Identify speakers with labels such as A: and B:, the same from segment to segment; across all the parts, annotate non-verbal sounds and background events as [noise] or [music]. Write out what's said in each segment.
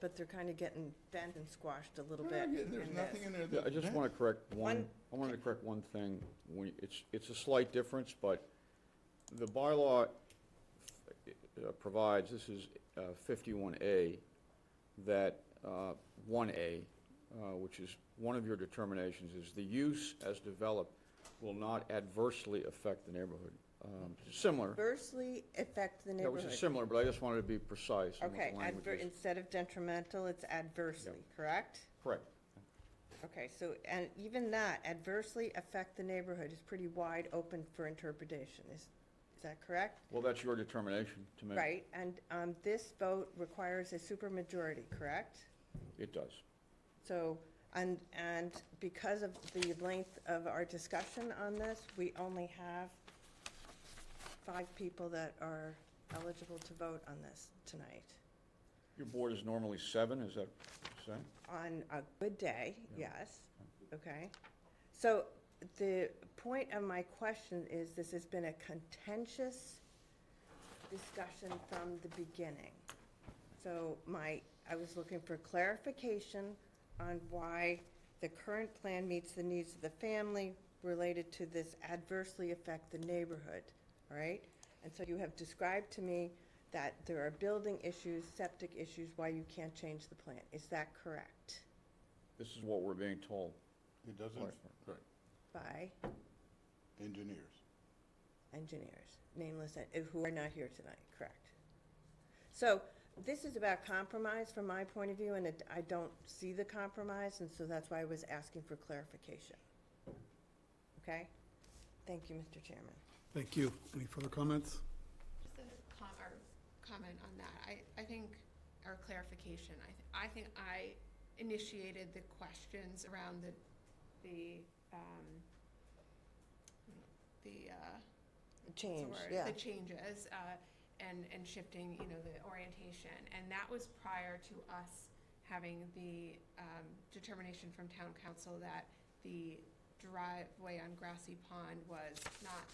A: but they're kind of getting bent and squashed a little
B: Yeah,
A: bit.
B: yeah, There's
A: in
B: nothing
A: this.
B: in there
C: Yeah,
B: that's.
C: I just
B: bent.
C: want to correct one,
A: One-
C: I wanted to correct one thing. When, it's, it's a slight difference, but the bylaw uh, provides, this is uh, fifty-one A, that uh, one A, uh, which is, one of your determinations is the use as developed will not adversely affect the neighborhood. Um, Similar,
A: Adversely affect the
C: that was
A: neighborhood.
C: similar, but I just wanted to be precise in what the
A: Okay,
C: language
A: adver-
C: is.
A: instead of detrimental, it's adversely, correct?
C: Correct.
A: Okay, so, and even that adversely affect the neighborhood is pretty wide open for interpretation, is, is that correct?
C: Well, that's your determination to make.
A: Right, and, um, this vote requires a supermajority, correct?
C: It does.
A: So, and, and because of the length of our discussion on this, we only have five people that are eligible to vote on this tonight.
C: Your board is normally seven, is that, is that?
A: On a good day, yes, okay? So the point of my question is, this has been a contentious discussion from the beginning. So my, I was looking for clarification on why the current plan meets the needs of the family related to this adversely affect the neighborhood, all right? And so you have described to me that there are building issues, septic issues, why you can't change the plan. Is that correct?
C: This is what we're being told.
B: It doesn't,
C: Right.
B: right,
A: By
B: engineers.
A: engineers, nameless, en- eh, who are not here tonight, correct? So this is about compromise from my point of view, and it- I don't see the compromise, and so that's why I was asking for clarification. Okay? Thank you, Mr. Chairman.
D: Thank you. Any further comments?
E: Just a com- or comment on that, I, I think, or clarification, I, th- I think I initiated the questions around the, the, um, the, uh, what's the
A: Change,
E: word?
A: yeah.
E: The changes, uh, and, and shifting, you know, the orientation, and that was prior to us having the, um, determination from town council that the driveway on Grassy Pond was not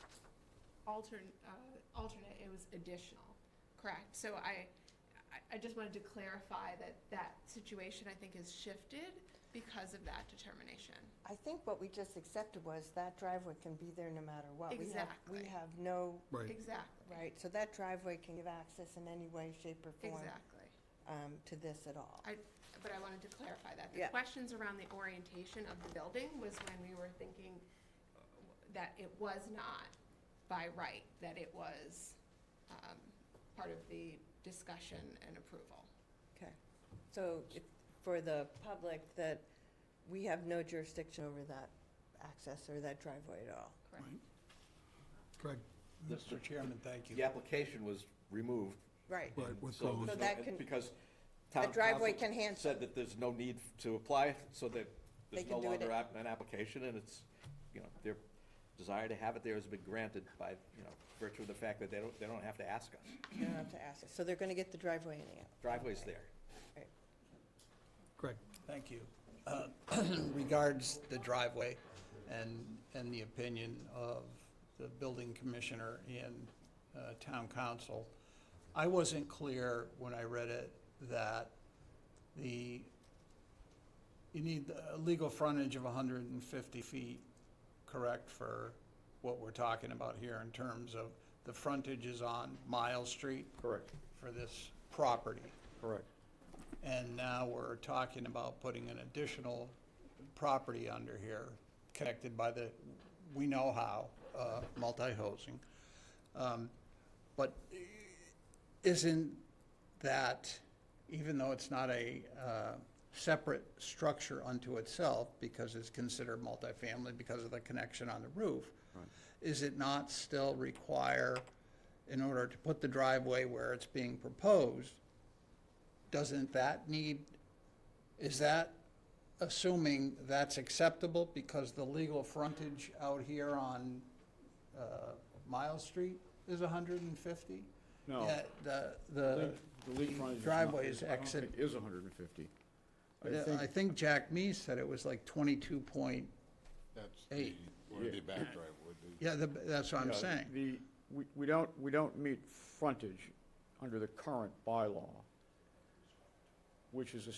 E: altern, uh, alternate, it was additional, correct? So I, I, I just wanted to clarify that that situation, I think, has shifted because of that determination.
A: I think what we just accepted was that driveway can be there no matter what. We have- We
E: Exactly.
A: have no,
D: Right.
E: Exactly,
A: right, so that driveway can give access in any way, shape, or form
E: exactly.
A: um, to this at all.
E: I, but I wanted to clarify that.
A: Yeah.
E: The questions around the orientation of the building was when we were thinking that it was not by right, that it was um, part of the discussion and approval.
A: Okay, so if- for the public, that we have no jurisdiction over that access or that driveway at all.
E: Correct.
D: Greg?
F: Mr. Chairman, thank you.
G: The application was removed.
A: Right.
D: Right,
G: and
D: with
G: so
D: bones.
G: there's
A: So
G: no-
A: that can-
G: Because
A: the
G: town
A: driveway
G: council
A: can hand-
G: Said that there's no need to apply, so that there's
A: can
G: no
A: do it
G: longer
A: at-
G: app- an application, and it's, you know, their desire to have it there has been granted by, you know, virtue of the fact that they don't, they don't have to ask us.
A: You don't have to ask. us. So they're going to get the driveway anyhow.
G: Driveway's there.
D: Greg?
F: Thank you. Uh, [clears throat] Regards the driveway and, and the opinion of the building commissioner and uh, town council, I wasn't clear when I read it that the, you need a legal frontage of 150 feet, correct, for what we're talking about here in terms of the frontage is on Miles Street
C: Correct,
F: for this property.
C: correct.
F: And now we're talking about putting an additional property under here, connected by the, we know how, uh, multi-housing. Um, But isn't that, even though it's not a uh, separate structure unto itself, because it's considered multifamily because of the connection on the roof, is it not still require, in order to put the driveway where it's being proposed, doesn't that need, is that assuming that's acceptable because the legal frontage out here on uh, Miles Street is 150?
C: No.
F: Yeah, The,
C: The
F: the
C: lead frontage is not-
F: driveway's
C: I don't
F: exit.
C: think Is hundred and fifty. I
F: Yeah, I
C: think,
F: think Jack Mees said it was like 22 point,
B: That's
F: Hey.
B: the, or the back driveway. the-
F: yeah, the- that's what I'm
C: uh,
F: saying.
C: The, we, we don't, we don't meet frontage under the current bylaw. which is a